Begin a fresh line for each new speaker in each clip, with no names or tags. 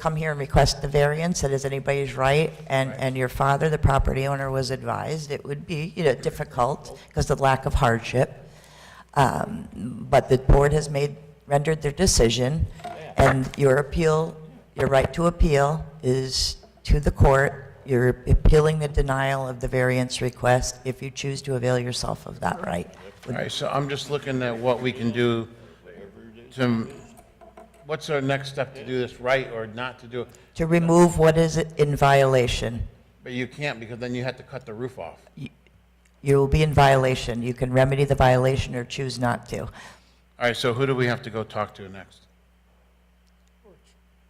come here and request the variance, that is anybody's right, and, and your father, the property owner, was advised it would be, you know, difficult because of the lack of hardship. Um, But the board has made, rendered their decision, and your appeal, your right to appeal is to the court. You're appealing the denial of the variance request if you choose to avail yourself of that right.
All right, so I'm just looking at what we can do to, what's our next step to do this right or not to do it?
To remove what is in violation.
But you can't because then you have to cut the roof off.
You will be in violation. You can remedy the violation or choose not to.
All right, so who do we have to go talk to next?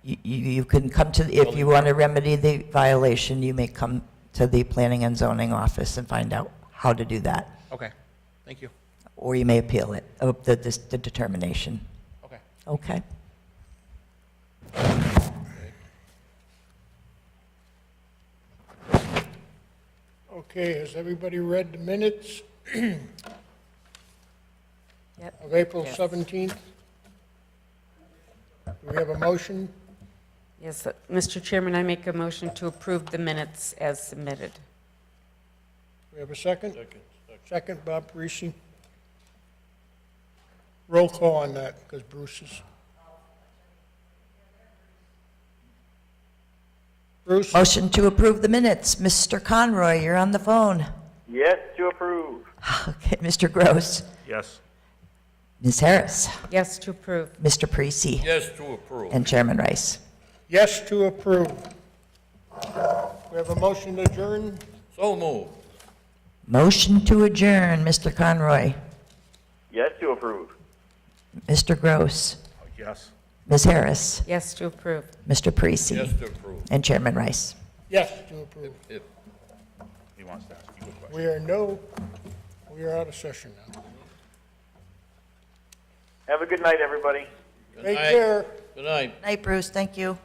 You, you you can come to, if you want to remedy the violation, you may come to the Planning and Zoning Office and find out how to do that.
Okay, thank you.
Or you may appeal it, uh, the, this- the determination.
Okay.
Okay?
Okay, has everybody read the minutes
Yep.
of April
Yes.
17th? Do we have a motion?
Yes, uh, Mr. Chairman, I make a motion to approve the minutes as submitted.
Do we have a second? Second. Second, Bob Parisi. Roll call on that, because Bruce is... Bruce,
Motion to approve the minutes. Mr. Conroy, you're on the phone.
Yes, to approve.
Okay, Mr. Gross.
Yes.
Ms. Harris.
Yes, to approve.
Mr. Parisi.
Yes, to approve.
And Chairman Rice.
yes to approve. We have a motion to adjourn?
So moved.
Motion to adjourn, Mr. Conroy,
Yes, to approve.
Mr. Gross,
Yes.
Ms. Harris,
Yes, to approve.
Mr.
Yes,
Parisi,
to approve,
and Chairman Rice.
Yes to approve.
if he wants to ask you a question.
We are no, we are out of session now.
Have a good night, everybody.
Take
night.
care.
Good night.
Night, Bruce, thank you.